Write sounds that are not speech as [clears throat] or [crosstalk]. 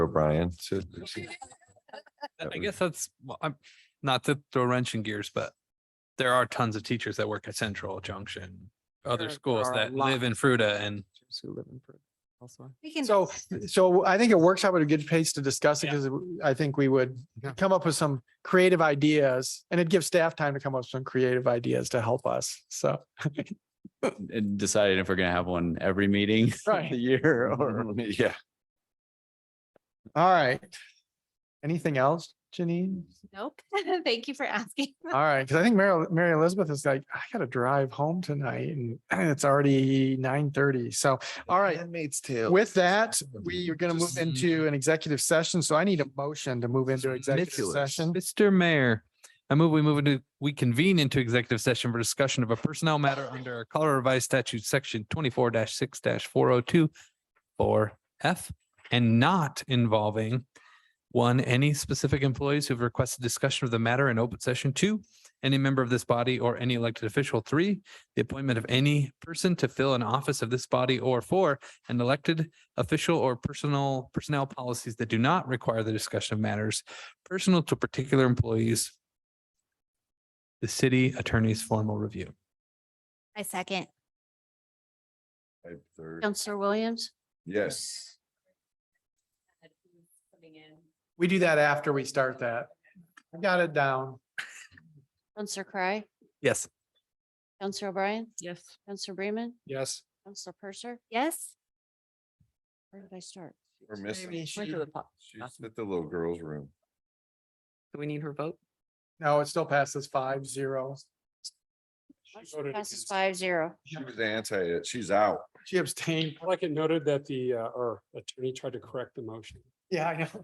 Brian. So- [laughs] I- That I would- guess that's, well, I'm, not to throw a wrench in gears, but there are tons of teachers that work at Central Junction, There other schools are a that live in Fruta and Teachers who live in Peru [laughs] elsewhere. We can. So, so I think a workshop would be a good place to discuss it Yeah. because I think we would come up with some creative ideas and it gives staff time to come up with some creative ideas to help us. So, and decided if we're gonna have one every meeting of Right. the year or Yeah, all right. Anything else, Janine? Nope. [laughs] Thank you for asking. All right, because I think Mary, Mary Elizabeth is like, I gotta drive home tonight and [clears throat] it's already nine thirty. So, all right. Handmaid's Tale. With that, we are gonna move Just- into an executive session. So I need a motion to move into executive Manipulous. session. Mr. Mayor, I move we move into, we convene into executive session for discussion of a personnel matter under Colorado Revised Statute, section twenty-four six four oh two four F and not involving one, any specific employees who've requested discussion of the matter in open session two, any member of this body or any elected official, three, the appointment of any person to fill an office of this body or four, an elected official or personal personnel policies that do not require the discussion of matters personal to particular employees. The city attorney's formal review. I second. Five thirty. Counselor Williams? Yes. We do that after we start that. I got it down. Counselor Cry? Yes. Counselor O'Brien? Yes. Counselor Bremen? Yes. Counselor Purser? Yes. Where did I start? We're missing. Maybe she went to the pub. She's at the little girl's room. Do we need her vote? No, it still passes five zero. She voted Passes against. five zero. She was anti it. She's out. She abstained. I like it noted that the, uh, our attorney tried to correct the motion. Yeah, I know.